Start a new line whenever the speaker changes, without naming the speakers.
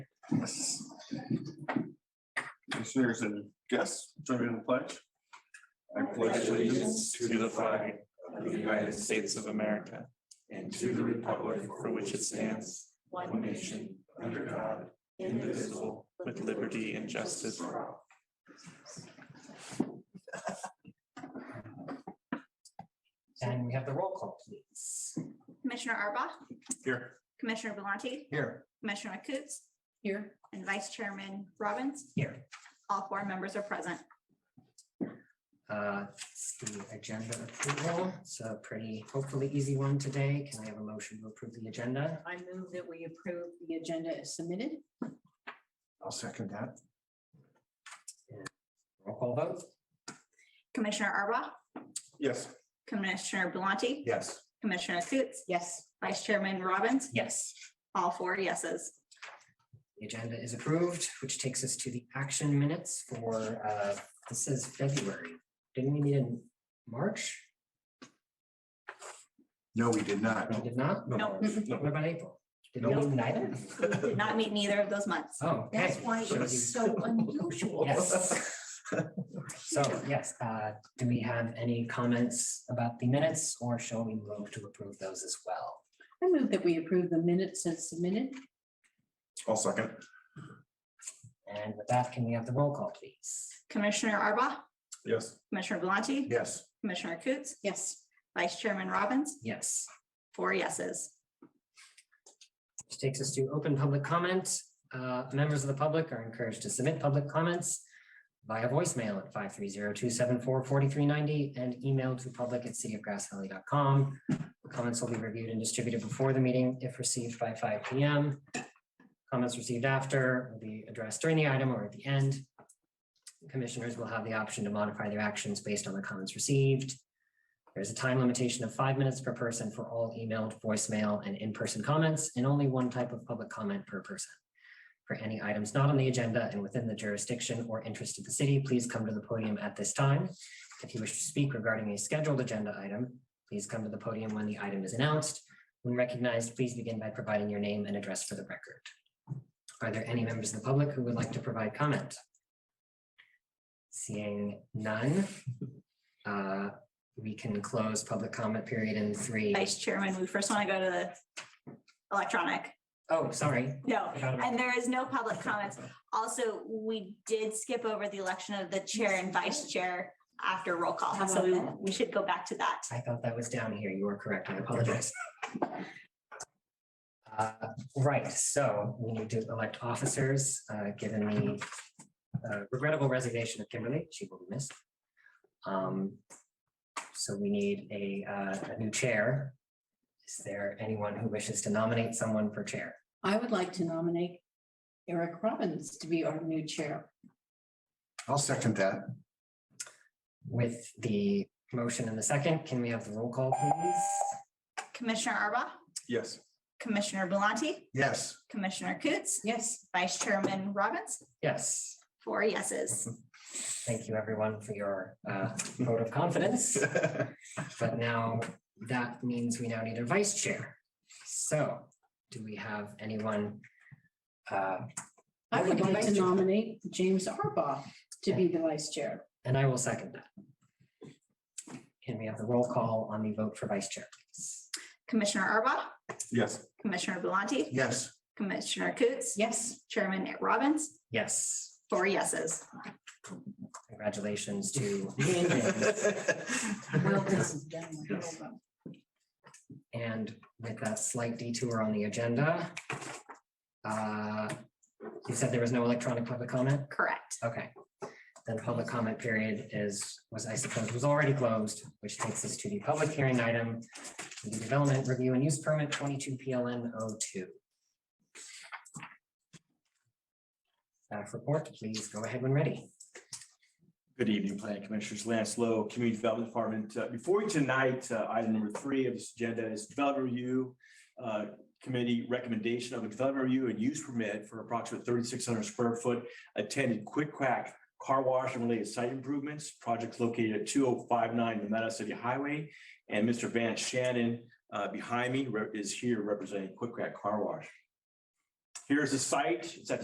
Yes. Commissioners and guests, join me in the pledge.
I pledge allegiance to the flag of the United States of America and to the republic for which it stands, one nation, under God, indivisible, with liberty and justice for all.
And we have the roll call, please.
Commissioner Arbuthnot,
Here.
Commissioner Vellante,
Here.
Commissioner Coots,
Here.
and Vice Chairman Robbins.
Here.
All four members are present.
Uh, it's The agenda approval, it's a pretty hopefully easy one today. Can I have a motion to approve the agenda?
I move that we approve the agenda as submitted.
I'll second that.
Roll call vote?
Commissioner Arbuthnot,
Yes.
Commissioner Vellante,
Yes.
Commissioner Coots,
Yes.
Vice Chairman Robbins,
Yes.
all four yeses.
The agenda is approved, which takes us to the action minutes for, uh, this is February. Didn't we meet in March?
No, we did not.
We did not.
No.
What about April? Did we meet neither?
Did not meet neither of those months.
Oh. okay.
That's why it
Shows you-
was so unusual.
Yes. So, yes, uh, do we have any comments about the minutes or shall we move to approve those as well?
I move that we approve the minutes as submitted.
I'll second.
And with that, can we have the roll call, please?
Commissioner Arbuthnot,
Yes.
Commissioner Vellante,
Yes.
Commissioner Coots,
Yes.
Vice Chairman Robbins,
Yes,
four yeses.
which takes us to open public comment. Uh, members of the public are encouraged to submit public comments via voicemail at 530-274-4390 and email to public at cityofgrassvalley.com. Comments will be reviewed and distributed before the meeting if received by five P M. Comments received after will be addressed during the item or at the end. Commissioners will have the option to modify their actions based on the comments received. There's a time limitation of five minutes per person for all emailed, voicemail, and in-person comments, and only one type of public comment per person. For any items not on the agenda and within the jurisdiction or interest of the city, please come to the podium at this time. If you wish to speak regarding a scheduled agenda item, please come to the podium when the item is announced. When recognized, please begin by providing your name and address for the record. Are there any members of the public who would like to provide comment? Seeing none. uh, we can close public comment period in three.
Vice Chairman, we first want to go to the electronic.
Oh, sorry.
No,
Forgot about-
and there is no public comments. Also, we did skip over the election of the chair and vice chair after roll call, so we, we should go back to that.
I thought that was down here. You are correct. I apologize. Uh, Right, so we need to elect officers, uh, given the uh, regrettable resignation of Kimberly. She will be missed. Um, So we need a, uh, a new chair. Is there anyone who wishes to nominate someone for chair?
I would like to nominate Eric Robbins to be our new chair.
I'll second that.
With the motion in the second, can we have the roll call, please?
Commissioner Arba,
Yes.
Commissioner Vellante,
Yes.
Commissioner Coots,
Yes.
Vice Chairman Robbins,
Yes.
four yeses.
Thank you, everyone, for your uh, vote of confidence. But now that means we now need a vice chair. So do we have anyone? uh,
I would like to
Vice chair.
nominate James Arbaugh to be the vice chair.
And I will second that. Can we have the roll call on the vote for vice chair? please?
Commissioner Arba,
Yes.
Commissioner Vellante,
Yes.
Commissioner Coots,
Yes.
Chairman Robbins,
Yes,
four yeses.
congratulations to me and him.
Well, this is done.
Yes. And with that slight detour on the agenda, uh, you said there was no electronic public comment?
Correct.
Okay. Then public comment period is, was I suppose, was already closed, which takes us to the public hearing item, the development review and use permit twenty-two PLN 2 Staff report, please go ahead when ready.
Good evening, Planning Commissioners. Lance Lowe, Community Development Department. Uh, Before you tonight, uh, item number three of this agenda is development review uh, committee recommendation of a development review and use permit for approximately thirty-six hundred square foot attended quick crack car wash and related site improvements, projects located at two oh five nine Nevada City Highway. And Mr. Van Shannon uh, behind me re- is here representing Quick Crack Car Wash. Here's the site. It's at the